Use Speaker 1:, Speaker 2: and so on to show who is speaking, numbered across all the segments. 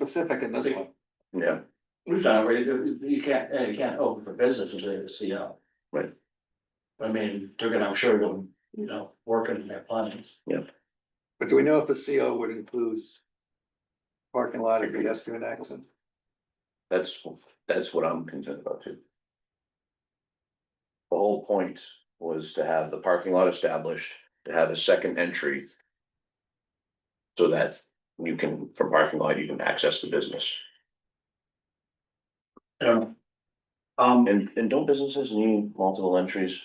Speaker 1: specific in this one.
Speaker 2: Yeah,
Speaker 3: We've done already, you can't, eh, you can't open for business until you have a CO.
Speaker 2: Right.
Speaker 3: I mean, they're gonna, I'm sure, they'll, you know, working in their planning.
Speaker 1: But do we know if the CO would include parking lot or pedestrian access?
Speaker 2: that's, that's what I'm concerned about too. The whole point was to have the parking lot established, to have a second entry. So that you can, from parking lot, you can access the business.
Speaker 3: Yeah. Um,
Speaker 2: And, and don't businesses need multiple entries?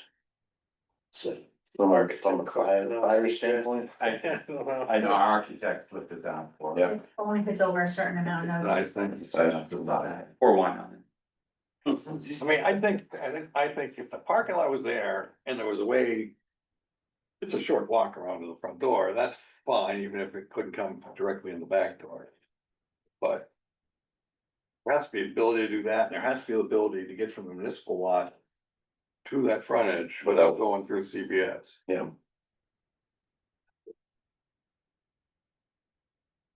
Speaker 2: So, from our, from a fire, fire standpoint?
Speaker 4: I, I know our architect looked at that for.
Speaker 2: Yeah.
Speaker 5: Only if it's over a certain amount of,
Speaker 1: Nice thing.
Speaker 2: I-
Speaker 4: Or one on it.
Speaker 1: I mean, I think, I think, I think if the parking lot was there and there was a way. It's a short walk around to the front door, that's fine, even if it couldn't come directly in the back door. But. There has to be ability to do that, and there has to be the ability to get from the municipal lot. To that frontage without going through CBS.
Speaker 2: Yeah.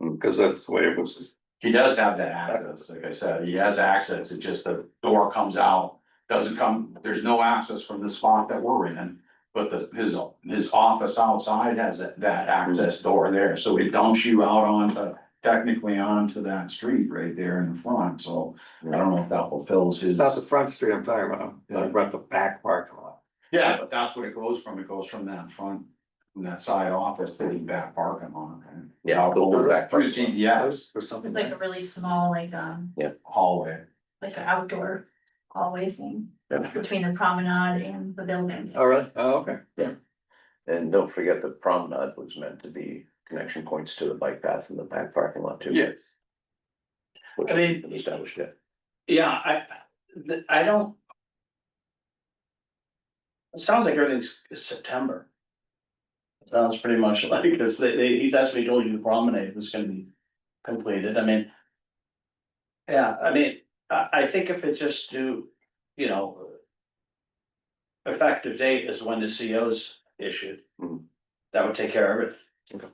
Speaker 1: Mm, Cause that's the way it was,
Speaker 4: He does have that access, like I said, he has access, it just the door comes out, doesn't come, there's no access from the spot that we're in. But the, his, his office outside has that, that access door there, so it dumps you out onto, technically onto that street right there in the front, so. I don't know if that fulfills
Speaker 1: it's
Speaker 4: his,
Speaker 1: not the front street I'm talking about, I
Speaker 4: Yeah.
Speaker 1: brought the back parking lot.
Speaker 4: yeah, but that's where it goes from, it goes from that front, from that side office to the back parking lot. and
Speaker 2: Yeah,
Speaker 4: out
Speaker 2: the
Speaker 4: over-
Speaker 2: back
Speaker 4: Through
Speaker 2: parking lot.
Speaker 4: CVS
Speaker 1: Or
Speaker 5: it's
Speaker 1: something.
Speaker 5: like a really small, like, um,
Speaker 4: hallway.
Speaker 5: like an outdoor hallway thing.
Speaker 2: Yeah.
Speaker 5: Between the promenade and the building.
Speaker 1: All right, oh, okay.
Speaker 2: And don't forget the promenade was meant to be connection points to the bike path in the back parking lot too.
Speaker 1: Yes.
Speaker 2: Which
Speaker 3: I
Speaker 2: has
Speaker 3: mean-
Speaker 2: been established yet.
Speaker 3: yeah, I, th- I don't. It sounds like everything's September. Sounds pretty much like, cause they, they, that's what he told you, the promenade was gonna be completed, I mean. Yeah, I mean, I, I think if it's just to, you know. Effective date is when the CO's issued.
Speaker 2: Mhm.
Speaker 3: That would take care of it.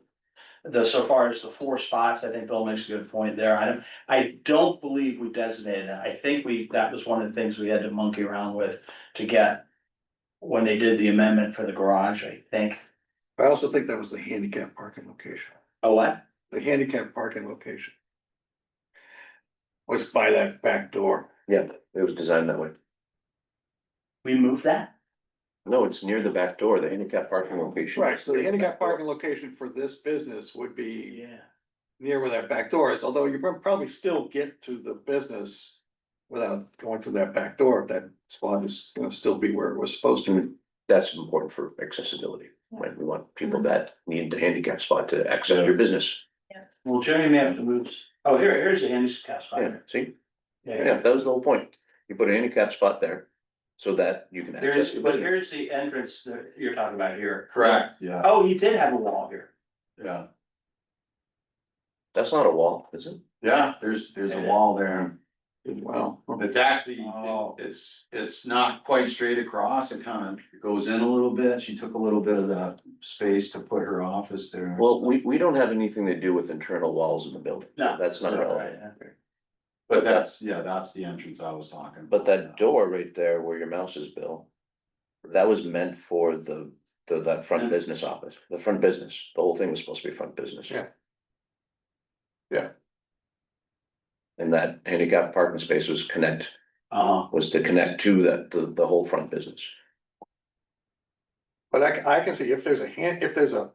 Speaker 3: The, so far as the four spots, I think Bill makes a good point there, I don't, I don't believe we designated it, I think we, that was one of the things we had to monkey around with to get. When they did the amendment for the garage, I think,
Speaker 1: I also think that was the handicap parking location,
Speaker 3: oh, what?
Speaker 1: the handicap parking location. Was by that back door.
Speaker 2: Yeah, it was designed that way.
Speaker 3: We moved that?
Speaker 2: No, it's near the back door, the handicap parking location.
Speaker 1: So the handicap parking location for this business would be
Speaker 3: Yeah.
Speaker 1: near where that back door is, although you prob- probably still get to the business. Without going through that back door, that spot is gonna still be where it was supposed to. be.
Speaker 2: That's important for accessibility, when we want people that need the handicap spot to access your business.
Speaker 3: Well, Jerry may have to move, oh, here, here's the handicap spot.
Speaker 2: Yeah, see, yeah, that was the whole point. You put a handicap spot there so that you can access
Speaker 3: There's,
Speaker 2: the
Speaker 3: but
Speaker 2: business.
Speaker 3: here's the entrance that you're talking about here.
Speaker 4: Correct, yeah,
Speaker 3: Oh, he did have a wall here.
Speaker 4: yeah,
Speaker 2: That's not a wall, is it?
Speaker 4: yeah, there's, there's a wall there.
Speaker 1: Wow.
Speaker 4: It's actually,
Speaker 3: Oh.
Speaker 4: it's, it's not quite straight across, it kind of goes in a little bit, she took a little bit of the space to put her office there.
Speaker 2: Well, we, we don't have anything to do with internal walls in the building.
Speaker 3: No.
Speaker 2: That's not relevant.
Speaker 3: Right, yeah.
Speaker 4: But that's, yeah, that's the entrance I was talking.
Speaker 2: But that
Speaker 4: about.
Speaker 2: door right there where your mouse is, Bill, that was meant for the, the, that front business office, the front business. The whole thing was supposed to be front business.
Speaker 1: Yeah. Yeah.
Speaker 2: And that handicap parking space was connect,
Speaker 3: Uh-huh.
Speaker 2: was to connect to that, the, the whole front business.
Speaker 1: But I, c- I can see if there's a hand, if there's a.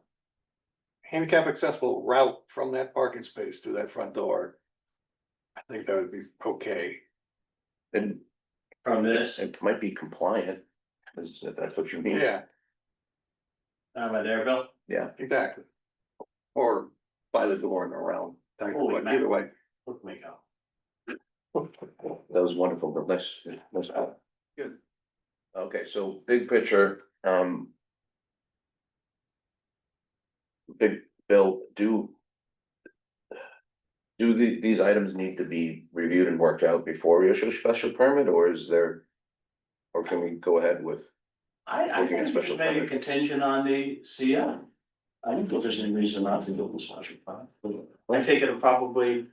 Speaker 1: Handicap accessible route from that parking space to that front door. I think that would be okay.
Speaker 2: And
Speaker 3: From this,
Speaker 2: it might be compliant, is that, that's what you mean?
Speaker 1: Yeah,
Speaker 3: am I there, Bill?
Speaker 1: exactly. Or by the door and around, like,
Speaker 3: Holy
Speaker 1: but
Speaker 3: man.
Speaker 1: either way.
Speaker 3: Look me go.
Speaker 2: That was wonderful, but let's, let's.
Speaker 1: Good.
Speaker 2: Okay, so big picture, um. Big Bill, do. Do the, these items need to be reviewed and worked out before we issue a special permit, or is there? Or can we go ahead with,
Speaker 3: I,
Speaker 2: Looking
Speaker 3: I
Speaker 2: at
Speaker 3: think it's
Speaker 2: special
Speaker 3: maybe
Speaker 2: permit.
Speaker 3: contingent on the CO. I don't think there's any reason not to do the special permit. I think it'll probably